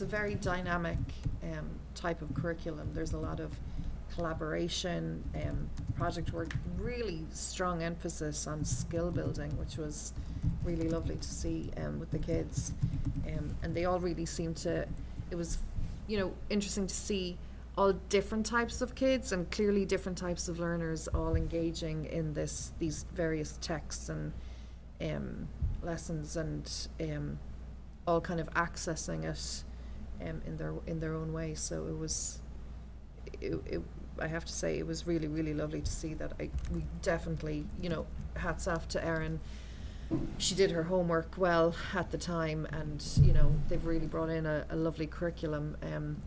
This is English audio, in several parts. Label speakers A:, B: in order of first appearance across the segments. A: a very dynamic um, type of curriculum. There's a lot of collaboration, um, project work, really strong emphasis on skill building, which was really lovely to see um, with the kids. Um, and they all really seemed to, it was, you know, interesting to see all different types of kids and clearly different types of learners all engaging in this these various texts and um, lessons and um, all kind of accessing it um, in their in their own way. So it was, it, it, I have to say, it was really really lovely to see that. I we definitely, you know, hats off to Erin. She did her homework well at the time, and you know they've really brought in a, a lovely curriculum. Um,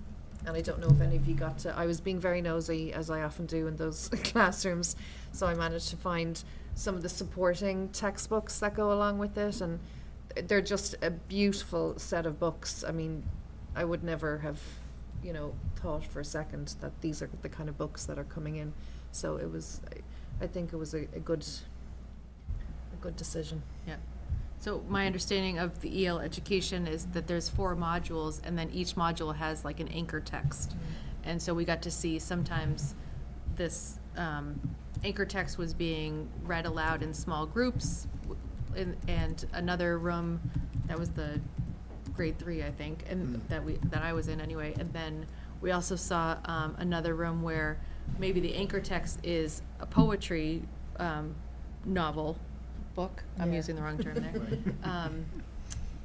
A: and I don't know if any of you got to. I was being very nosy, as I often do in those classrooms, so I managed to find some of the supporting textbooks that go along with it, and they're just a beautiful set of books. I mean, I would never have, you know, thought for a second that these are the kind of books that are coming in. So it was, I- I think it was a, a good, a good decision.
B: Yeah. So my understanding of the EL education is that there's four modules, and then each module has like an anchor text. And so we got to see sometimes this um, anchor text was being read aloud in small groups, w- in- and another room, that was the grade three, I think, and
C: Mm.
B: that we, that I was in anyway. And then we also saw um, another room where maybe the anchor text is a poetry um, novel book. I'm
A: Yeah.
B: using the wrong term there.
C: Right.
B: Um,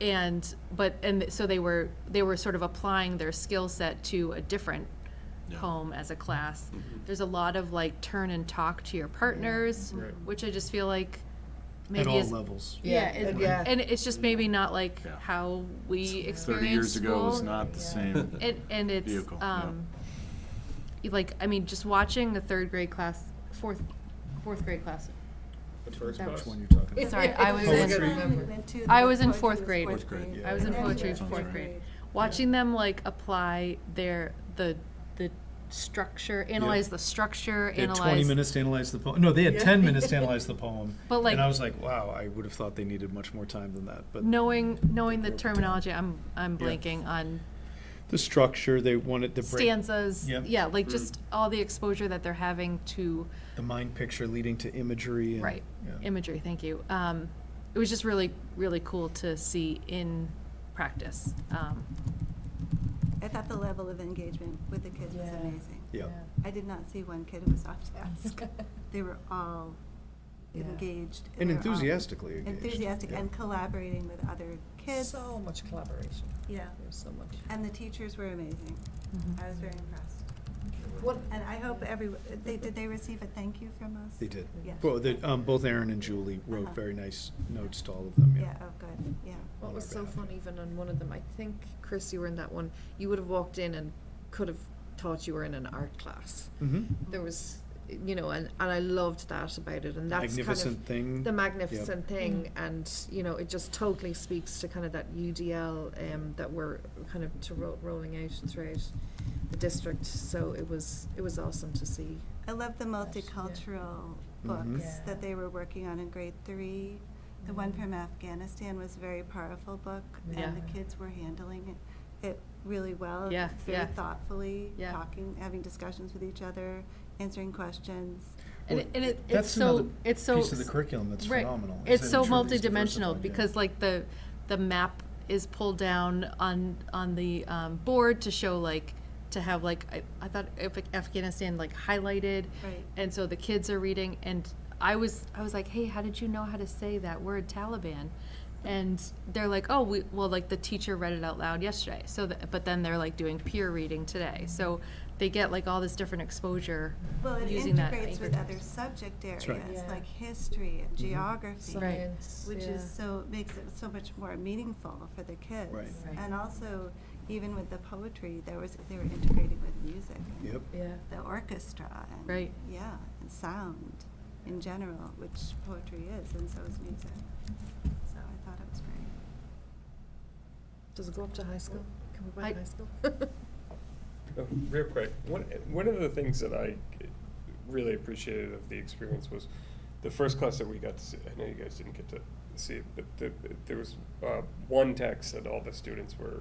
B: and but and so they were they were sort of applying their skill set to a different
C: Yeah.
B: home as a class.
C: Mhm.
B: There's a lot of like turn and talk to your partners,
C: Right.
B: which I just feel like maybe
C: At all
B: is,
C: levels.
B: Yeah,
A: Yeah,
B: it-
A: yeah.
B: and it's just maybe not like
C: Yeah.
B: how we experience
D: Thirty years ago was
B: school.
D: not the
A: Yeah.
D: same.
B: And, and it's,
D: Vehicle, yeah.
B: um, you like, I mean, just watching the third grade class, fourth, fourth grade class. That
C: Which
B: was-
C: one you're talking about?
B: Sorry, I was
C: Poetry.
B: in,
E: Went to
B: I
E: the
B: was in
E: poetry
B: fourth
E: was
B: grade.
E: fourth
D: Fourth grade,
E: grade.
D: yeah.
B: I was in
E: And then
B: poetry
E: went to
B: fourth
E: fifth
B: grade. Watching them like apply their, the, the structure, analyze the structure,
C: They had
B: analyze.
C: twenty minutes to analyze the poem. No, they had ten minutes to analyze the poem.
B: But, like-
C: And I was like, wow, I would have thought they needed much more time than that, but.
B: Knowing, knowing the
C: Yeah.
B: terminology, I'm, I'm
C: Yeah.
B: blanking on
C: The structure, they wanted to break
B: stanzas,
C: Yeah. Mm.
B: yeah, like just all the exposure that they're having to
C: the mind picture leading to imagery and.
B: Right.
C: yeah.
B: imagery, thank you. Um, it was just really, really cool to see in practice. Um,
E: I thought the level of engagement with the kids was
A: Yeah.
E: amazing.
C: Yeah.
E: I did not see one kid who was off task. They were all
A: Yeah.
E: engaged.
C: And
E: they were all
C: enthusiastically engaged.
E: Enthusiastic
C: Yeah.
E: and collaborating with other kids.
A: So much collaboration.
E: Yeah.
A: There's so much.
E: And the teachers were amazing. I was very impressed.
A: What-
E: And I hope every, they, did they receive a thank you from us?
C: They did.
E: Yeah.
C: Well, the, um, both Aaron and Julie wrote
E: Uh-huh.
C: very nice notes to all of them,
E: Yeah,
C: yeah.
E: oh, good, yeah.
A: What
C: on
A: was
C: our
A: so
C: behalf.
A: fun even on one of them, I think, Chris, you were in that one, you would have walked in and could have thought you were in an art class.
C: Mhm.
A: There was, you know, and, and I loved that about it, and that's kind of
C: Magnificent thing.
A: the magnificent thing,
E: Mm-hmm.
A: and, you know, it just totally speaks to kind of that UDL, um, that we're kind of to ro- rolling out throughout the district, so it was, it was awesome to see.
E: I love the
A: Yes, yeah.
E: multicultural
C: Mhm.
E: books
A: Yeah.
E: that they were working on in grade three. The one
A: Mm.
E: from Afghanistan was a very powerful book,
B: Yeah.
E: and the kids were handling it, it really well.
B: Yeah, yeah.
E: Very thoughtfully,
B: Yeah.
E: talking, having discussions with each other, answering questions.
B: And
C: Well,
B: it, and it,
C: that's
B: it's so,
C: another
B: it's so.
C: piece of the curriculum that's
B: right.
C: phenomenal, is
B: It's
C: that
B: so
C: it truly is
B: multidimensional
C: diversified, yeah.
B: because like the, the map is pulled down on, on the, um, board to show like, to have like, I, I thought Af- Afghanistan like highlighted.
E: Right.
B: And so the kids are reading and I was, I was like, hey, how did you know how to say that word Taliban? And they're like, oh, we, well, like the teacher read it out loud yesterday. So, th- but then they're like doing peer reading today. So they get like all this different exposure
E: Well, it
B: using that.
E: integrates
B: anchor
E: with other
B: text.
E: subject
C: That's right.
E: areas,
A: Yeah.
E: like history and geography.
B: Right.
E: which
A: yeah.
E: is so makes it so much more meaningful for the kids.
C: Right.
A: Right.
E: And also, even with the poetry, there was they were integrating with music. and
C: Yep.
A: Yeah.
E: The orchestra and
B: Right.
E: yeah, and sound in general, which poetry is, and so is music. So I thought it was great.
A: Does it go up to high school? Can we buy
B: I-
A: high school?
F: Oh, Real quick, one, one of the things that I really appreciated of the experience was the first class that we got to see, I know you guys didn't get to see it, but the, there was, uh, one text that all the students were